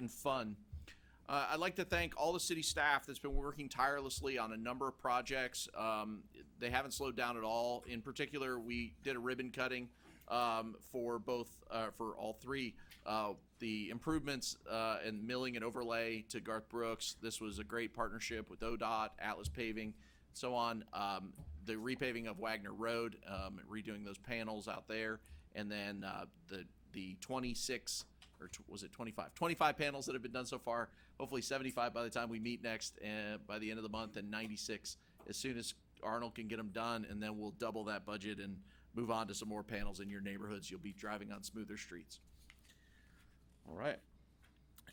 and fun. Uh, I'd like to thank all the city staff that's been working tirelessly on a number of projects. Um, they haven't slowed down at all. In particular, we did a ribbon cutting um, for both uh, for all three uh, the improvements uh, and milling and overlay to Garth Brooks. This was a great partnership with ODOT, Atlas Paving, so on. Um, the repaving of Wagner Road, um, redoing those panels out there, and then uh, the the 26 or tw- was it 25 25 panels that have been done so far hopefully 75 by the time we meet next uh, by the end of the month and 96 as soon as arnold can get them done and then we'll double that budget and move on to some more panels in your neighborhoods you'll be driving on smoother streets all right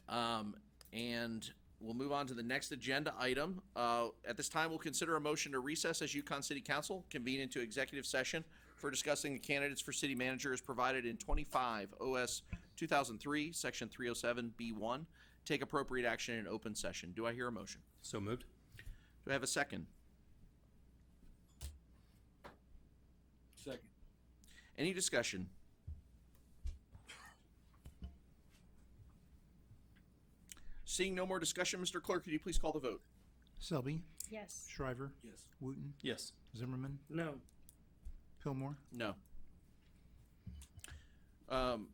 um, and we'll move on to the next agenda item. Uh, at this time, we'll consider a motion to recess as Yukon City Council, convene into executive session for discussing the candidates for city manager as provided in twenty-five OS two thousand three, section three oh seven B one. Take appropriate action in open session. Do I hear a motion? So moved. Do I have a second? Second. Any discussion? Seeing no more discussion, Mr. Clerk, could you please call the vote? Selby, Yes. Shriver, Yes. Wooten, Yes. Zimmerman, No. Pillmore, No. Um,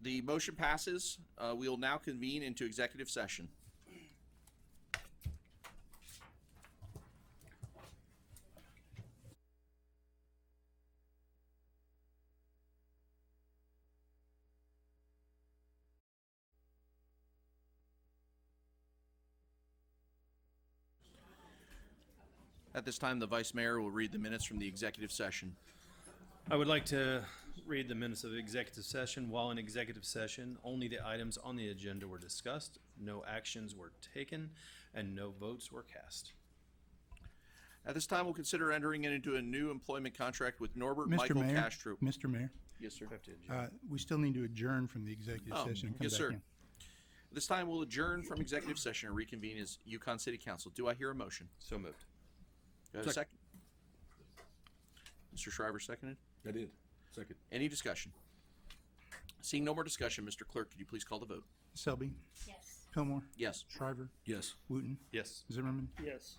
the motion passes. Uh, we will now convene into executive session. At this time, the vice mayor will read the minutes from the executive session. I would like to read the minutes of executive session. While in executive session, only the items on the agenda were discussed, no actions were taken, and no votes were cast. At this time, we'll consider entering into a new employment contract with Norbert Mr. Michael Mayor. Castro. Mr. Mayor, Yes, sir. uh, we still need to adjourn from the executive Oh, session and come yes, back sir. in. This time, we'll adjourn from executive session and reconvene as Yukon City Council. Do I hear a motion? So moved. Do I have a second? Mr. Shriver seconded. I did. Second. Any discussion? Seeing no more discussion, Mr. Clerk, could you please call the vote? Selby, Yes. Pillmore, Yes. Shriver, Yes. Wooten, Yes. Zimmerman, Yes.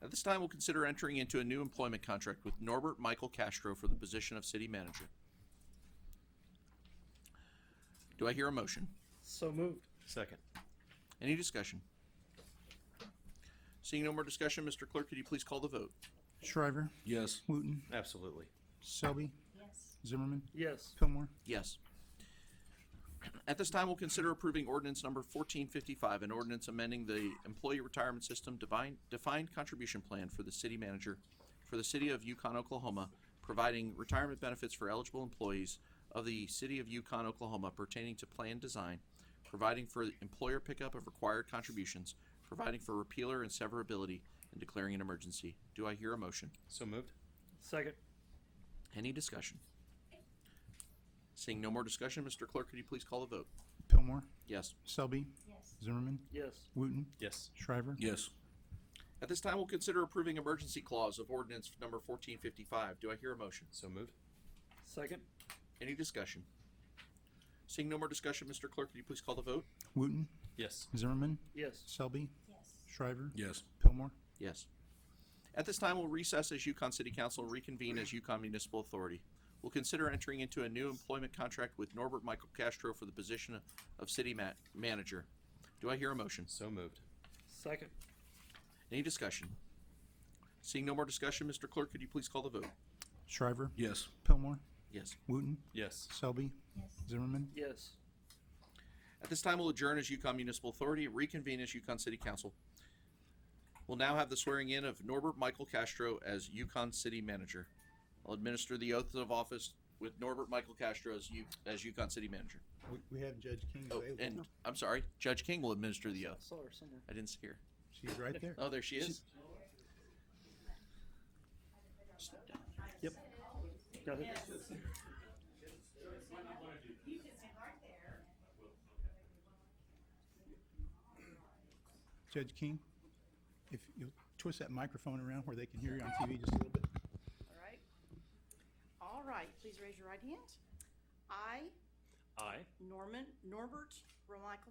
At this time, we'll consider entering into a new employment contract with Norbert Michael Castro for the position of city manager. Do I hear a motion? So moved. Second. Any discussion? Seeing no more discussion, Mr. Clerk, could you please call the vote? Shriver, Yes. Wooten, Absolutely. Selby, Yes. Zimmerman, Yes. Pillmore, Yes. At this time, we'll consider approving ordinance number fourteen fifty-five, an ordinance amending the employee retirement system divine, defined contribution plan for the city manager for the city of Yukon, Oklahoma, providing retirement benefits for eligible employees of the city of Yukon, Oklahoma pertaining to plan design, providing for employer pickup of required contributions, providing for repealer and severability, and declaring an emergency. Do I hear a motion? So moved. Second. Any discussion? Seeing no more discussion, Mr. Clerk, could you please call the vote? Pillmore, Yes. Selby, Yes. Zimmerman, Yes. Wooten, Yes. Shriver, Yes. At this time, we'll consider approving emergency clause of ordinance number fourteen fifty-five. Do I hear a motion? So moved. Second. Any discussion? Seeing no more discussion, Mr. Clerk, could you please call the vote? Wooten, Yes. Zimmerman, Yes. Selby, Yes. Shriver, Yes. Pillmore, Yes. At this time, we'll recess as Yukon City Council and reconvene as Yukon Municipal Authority. We'll consider entering into a new employment contract with Norbert Michael Castro for the position of city ma- manager. Do I hear a motion? So moved. Second. Any discussion? Seeing no more discussion, Mr. Clerk, could you please call the vote? Shriver, Yes. Pillmore, Yes. Wooten, Yes. Selby, Yes. Zimmerman, Yes. At this time, we'll adjourn as Yukon Municipal Authority, reconvene as Yukon City Council. We'll now have the swearing in of Norbert Michael Castro as Yukon City Manager. I'll administer the oath of office with Norbert Michael Castro as Yu- as Yukon City Manager. We- We have Judge King Oh, and available. I'm sorry, Judge King will administer the oath. saw her somewhere. I didn't see her. She's right there. Oh, there she is. Go ahead. Judge King, if you'll twist that microphone around where they can hear you on TV just a little bit. All right. All right, please raise your right hand. I, Aye. Norman, Norbert Romichael